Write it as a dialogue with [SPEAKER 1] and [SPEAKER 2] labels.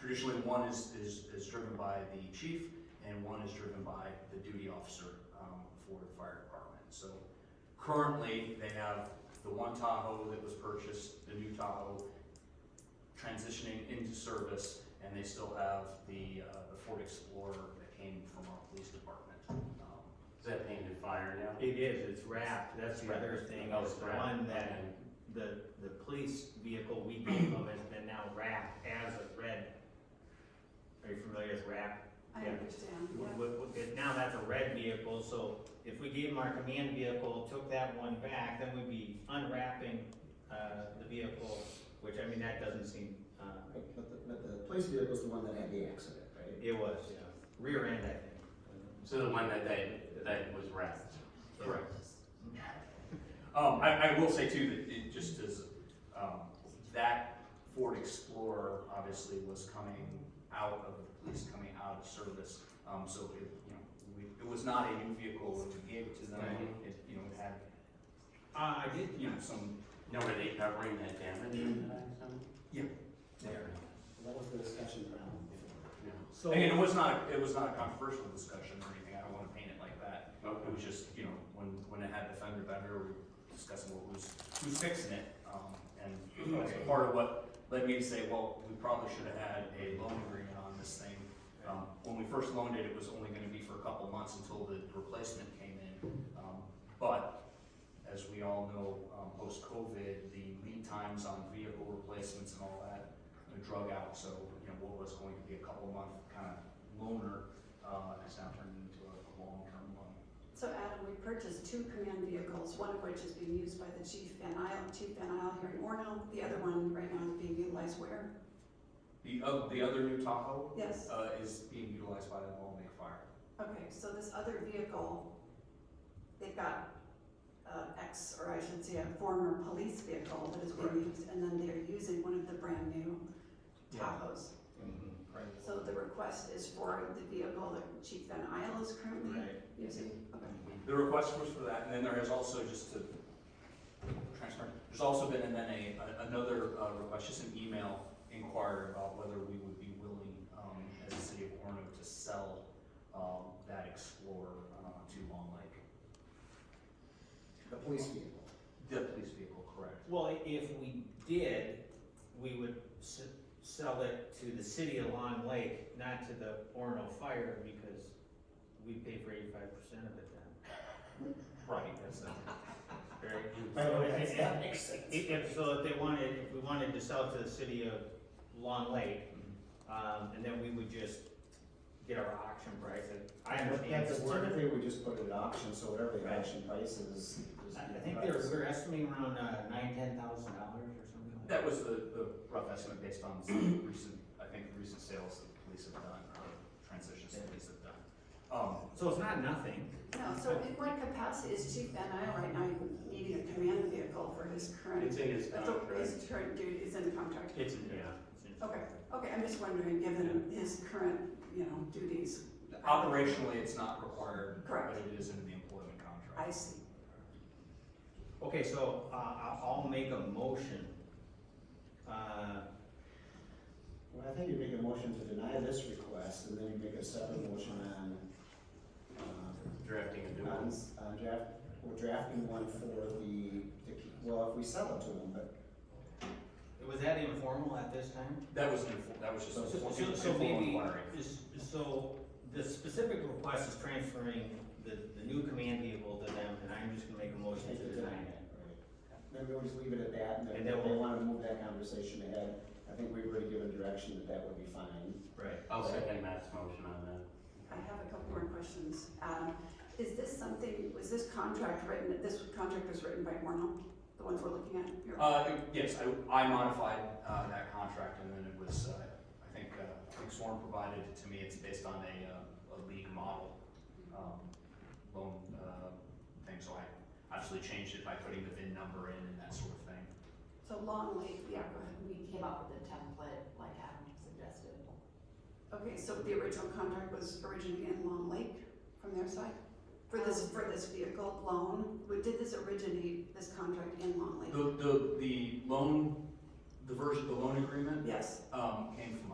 [SPEAKER 1] Traditionally, one is, is, is driven by the chief and one is driven by the duty officer, um, for the fire department. So currently, they have the one Tahoe that was purchased, the new Tahoe, transitioning into service, and they still have the, uh, the Ford Explorer that came from our police department. Um,
[SPEAKER 2] Is that painted fire now?
[SPEAKER 3] It is, it's wrapped, that's the other
[SPEAKER 2] Wrapped.
[SPEAKER 3] thing,
[SPEAKER 2] Oh,
[SPEAKER 3] is
[SPEAKER 2] it's
[SPEAKER 3] the
[SPEAKER 2] wrapped.
[SPEAKER 3] one that, the, the police vehicle we gave them has been now wrapped as a red. Are you familiar with wrap?
[SPEAKER 4] I
[SPEAKER 3] Yeah.
[SPEAKER 4] understand,
[SPEAKER 3] W-
[SPEAKER 4] yeah.
[SPEAKER 3] w- w- it- Now that's a red vehicle, so if we gave them our command vehicle, took that one back, then we'd be unwrapping, uh, the vehicle, which, I mean, that doesn't seem, uh,
[SPEAKER 5] But the, but the police vehicle's the one that had the accident, right?
[SPEAKER 3] it was, yeah, rear end, I think.
[SPEAKER 2] So the one that they, that was wrapped?
[SPEAKER 1] Correct. Um, I, I will say too, that it just is, um, that Ford Explorer obviously was coming out of, the police coming out of service. Um, so it, you know, we, it was not a new vehicle when we gave it to them,
[SPEAKER 2] Right.
[SPEAKER 1] it, you know, it had,
[SPEAKER 3] Uh, I did,
[SPEAKER 1] you know, some,
[SPEAKER 2] Now, were they covering that damage in that accident?
[SPEAKER 1] there.
[SPEAKER 5] That was the discussion around.
[SPEAKER 3] so.
[SPEAKER 1] And it was not, it was not a controversial discussion or anything, I don't wanna paint it like that.
[SPEAKER 2] Okay.
[SPEAKER 1] It was just, you know, when, when it had the fender bender, we were discussing what was, who's fixing it. Um, and that's
[SPEAKER 3] Okay.
[SPEAKER 1] part of what led me to say, well, we probably should have had a loan agreement on this thing. Um, when we first loaned it, it was only gonna be for a couple months until the replacement came in. Um, but as we all know, um, post-COVID, the lead times on vehicle replacements and all that uh, drug out. So, you know, what was going to be a couple month kind of loaner, uh, has now turned into a a long-term loan.
[SPEAKER 4] So Adam, we purchased two command vehicles, one of which is being used by the chief Van Isle, Chief Van Isle here in Orno. The other one right now is being utilized where?
[SPEAKER 1] The, uh, the other new Tahoe,
[SPEAKER 4] Yes,
[SPEAKER 1] uh, is being utilized by the Walnut Fire.
[SPEAKER 4] okay, so this other vehicle, they've got, uh, ex, or I should say a former police vehicle that is being used, and then they're using one of the brand new
[SPEAKER 3] Yeah.
[SPEAKER 4] Tahoes.
[SPEAKER 3] Mhm, Right,
[SPEAKER 4] So the request is for the vehicle that Chief Van Isle is currently
[SPEAKER 3] right.
[SPEAKER 4] using? Okay.
[SPEAKER 1] The request was for that, and then there has also, just to transfer, there's also been, and then a, a- another, uh, request, just an email inquiry about whether we would be willing, um, as a city of Orno to sell, um, that Explorer, uh, to Long Lake.
[SPEAKER 5] The police vehicle.
[SPEAKER 1] The police vehicle, correct.
[SPEAKER 3] Well, i- if we did, we would s- sell it to the city of Long Lake, not to the Orno Fire, because we pay for eighty-five percent of it then. Right, that's not. Very. So if-
[SPEAKER 5] makes sense.
[SPEAKER 3] If, if- so if they wanted, if we wanted to sell it to the city of Long Lake,
[SPEAKER 5] Mm-hmm.
[SPEAKER 3] um, and then we would just get our auction price, and I understand.
[SPEAKER 5] That's
[SPEAKER 3] it's worded-
[SPEAKER 5] typically, we just put it at auction, so whatever the
[SPEAKER 3] Right.
[SPEAKER 5] auction price is. is
[SPEAKER 3] I, I
[SPEAKER 5] the
[SPEAKER 3] think
[SPEAKER 5] price.
[SPEAKER 3] they're, we're estimating around, uh, nine, ten thousand dollars or something like
[SPEAKER 1] That
[SPEAKER 3] that.
[SPEAKER 1] was the, the rough estimate based on some recent, I think, recent sales that the police have done, or transitions the police have done. Um,
[SPEAKER 3] So it's not nothing.
[SPEAKER 4] No, so in what capacity is Chief Van Isle right now needing a command vehicle for his
[SPEAKER 2] It's
[SPEAKER 4] current?
[SPEAKER 2] in his
[SPEAKER 4] but the-
[SPEAKER 2] contract.
[SPEAKER 4] His current duty is in the contract?
[SPEAKER 2] It's in, yeah.
[SPEAKER 4] Okay, okay, I'm just wondering, given his current, you know, duties.
[SPEAKER 1] Operationally, it's not required, but
[SPEAKER 4] Correct.
[SPEAKER 1] it is in the employment contract.
[SPEAKER 4] I see.
[SPEAKER 3] Okay, so, uh, I- I'll make a motion. Uh,
[SPEAKER 5] Well, I think you make a motion to deny this request, and then you make a separate motion on, uh,
[SPEAKER 2] Drafting a new
[SPEAKER 5] on,
[SPEAKER 2] one.
[SPEAKER 5] s- on draft, we're drafting one for the, the, key- well, if we sell it to them, but
[SPEAKER 3] was that informal at this time?
[SPEAKER 1] That was, an info- that was just
[SPEAKER 3] So,
[SPEAKER 1] a formal
[SPEAKER 3] so- so maybe,
[SPEAKER 1] inquiry.
[SPEAKER 3] is- so the specific request is transferring the, the new command vehicle to them, and I'm just gonna make a motion
[SPEAKER 5] Take
[SPEAKER 3] to
[SPEAKER 5] it
[SPEAKER 3] deny
[SPEAKER 5] down.
[SPEAKER 3] it.
[SPEAKER 5] Maybe we'll just leave it at that, and
[SPEAKER 3] And
[SPEAKER 5] then
[SPEAKER 3] then
[SPEAKER 5] if they
[SPEAKER 3] we'll-
[SPEAKER 5] wanna move that conversation ahead, I think we've already given direction that that would be fine.
[SPEAKER 3] Right.
[SPEAKER 2] I'll second Matt's motion on that.
[SPEAKER 4] I have a couple more questions. Adam, is this something, was this contract written, this contract was written by Orno, the one we're looking at? Your-
[SPEAKER 1] Uh, it- yes, I, I modified, uh, that contract and then it was, uh, I think, uh, I think Sworn provided it to me, it's based on a, uh, a league model, um, loan, uh, thing, so I actually changed it by putting the VIN number in and that sort of thing.
[SPEAKER 4] So Long Lake, yeah, go ahead.
[SPEAKER 6] we came up with a template like Adam suggested.
[SPEAKER 4] Okay, so the original contract was originally in Long Lake from their side? For
[SPEAKER 6] Um,
[SPEAKER 4] this, for this vehicle loan, Who- did this originate, this contract in Long Lake?
[SPEAKER 1] The, the, the loan, the version, the loan agreement,
[SPEAKER 4] Yes,
[SPEAKER 1] um, came from